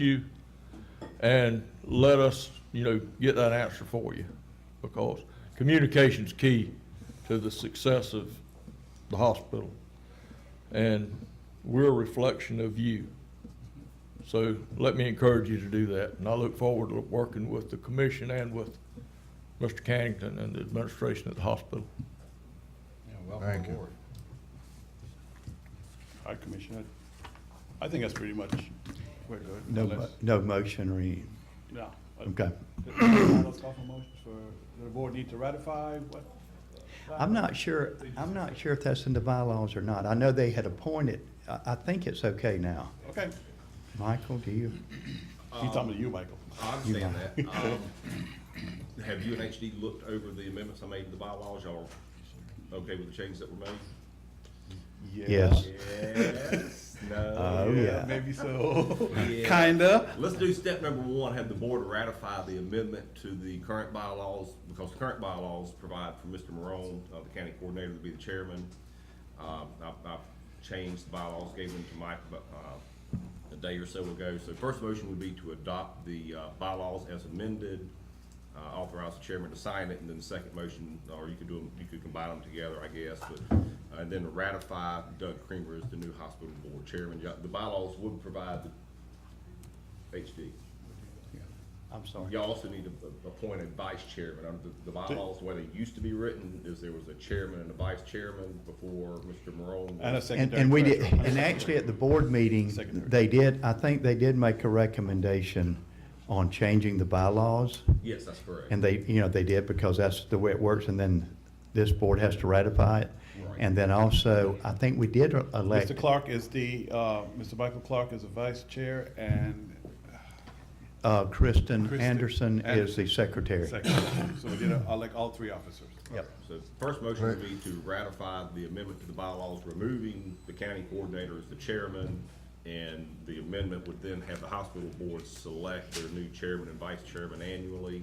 you and let us, you know, get that answer for you. Because communication's key to the success of the hospital. And we're a reflection of you. So let me encourage you to do that. And I look forward to working with the commission and with Mr. Cannington and the administration at the hospital. Yeah, Thank welcome you. aboard. All right, Commissioner, I think that's pretty much, we're good. No, mo- Unless- no motion or any, No. okay. Let's call for motions for, the board need to ratify what? I'm not sure, I'm not sure if that's in the bylaws or not. I know they had appointed, I, I think it's okay now. Okay, Michael, do you? he's talking to you, Michael. I understand that. Um, Have you and HD looked over the amendments I made to the bylaws? Y'all okay with the changes that were made? Yes. Yes, Oh, no. yeah. Maybe so, Yeah. kinda. Let's do step number one, have the board ratify the amendment to the current bylaws, because the current bylaws provide for Mr. Morone, uh, the county coordinator, to be the chairman. Um, I, I changed the bylaws, gave them to Mike, about, uh, a day or so ago. So first motion would be to adopt the, uh, bylaws as amended, uh, authorize the chairman to sign it, and then the second motion, or you could do them, you could combine them together, I guess, but, uh, and then to ratify Doug Creamer as the new hospital board chairman. Yeah, The bylaws would provide the HD. I'm sorry. You also need to a- appoint a vice chairman. Under the- the bylaws, the way they used to be written is there was a chairman and a vice chairman before Mr. Morone. And a And, secondary. and we did, treasurer. and actually at the board meeting, Secondary. they did, I think they did make a recommendation on changing the bylaws. Yes, that's correct. And they, you know, they did because that's the way it works and then this board has to ratify it. Right. And then also, I think we did elect Mr. Clark is the, uh, Mr. Michael Clark is the vice chair and Uh, Kristen Kristen Anderson is Anderson. the secretary. secretary. So we did, uh, like, all three officers. Yep. So first motion would be to ratify the amendment to the bylaws, removing the county coordinator as the chairman. And the amendment would then have the hospital board select their new chairman and vice chairman annually.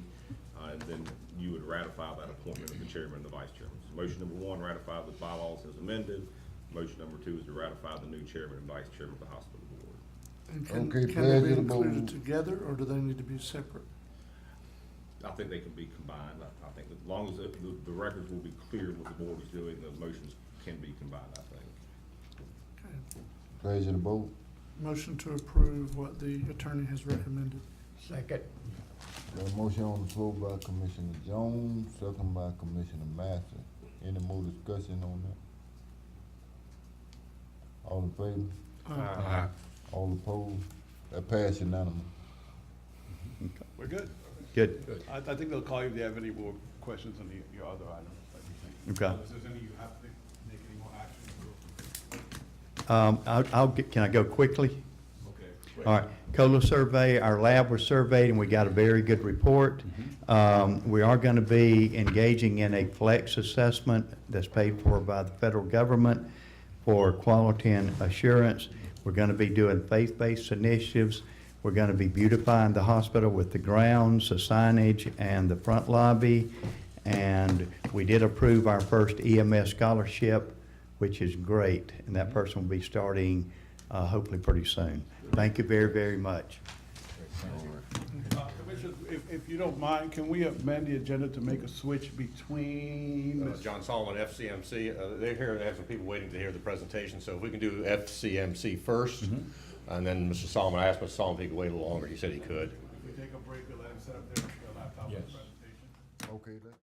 uh, And then you would ratify that appointment of the chairman and the vice chairman. So Motion number one, ratify the bylaws as amended. Motion number two is to ratify the new chairman and vice chairman of the hospital board. And can, Okay, can they be pleasurable. included together, or do they need to be separate? I think they can be combined. I I think as long as the, the- the records will be clear what the board is doing, the motions can be combined, I think. Okay. Pleasure to vote. Motion to approve what the attorney has recommended. Second. Got a motion on the floor by Commissioner Jones, second by Commissioner Master. Any more discussion on that? All in favor? Uh, All opposed? That pass unanimous. We're good. Good, I, I think they'll call you if they have any more questions on the, your other items. like you think. Okay. If there's any you have to make any more action, we'll- Um, I'll, I'll get- can I go quickly? okay. All right, COLA survey, our lab was surveyed, and we got a very good report. Um, We are going to be engaging in a flex assessment that's paid for by the federal government for quality and assurance. We're going to be doing faith-based initiatives. We're going to be beautifying the hospital with the grounds, the signage, and the front lobby. And we did approve our first EMS scholarship, which is great, and that person will be starting uh, hopefully pretty soon. Thank you very, very much. Uh, Commissioners, if, if you don't mind, can we amend the agenda to make a switch between? Uh, John Solomon, FCMC, uh, they're here, they have some people waiting to hear the presentation, so if we can do FCMC first, and then Mr. Solomon, I asked Mr. Solomon if he could wait a little longer, he said he could. If we take a break, we'll let him set up their their laptop for the presentation. Okay, let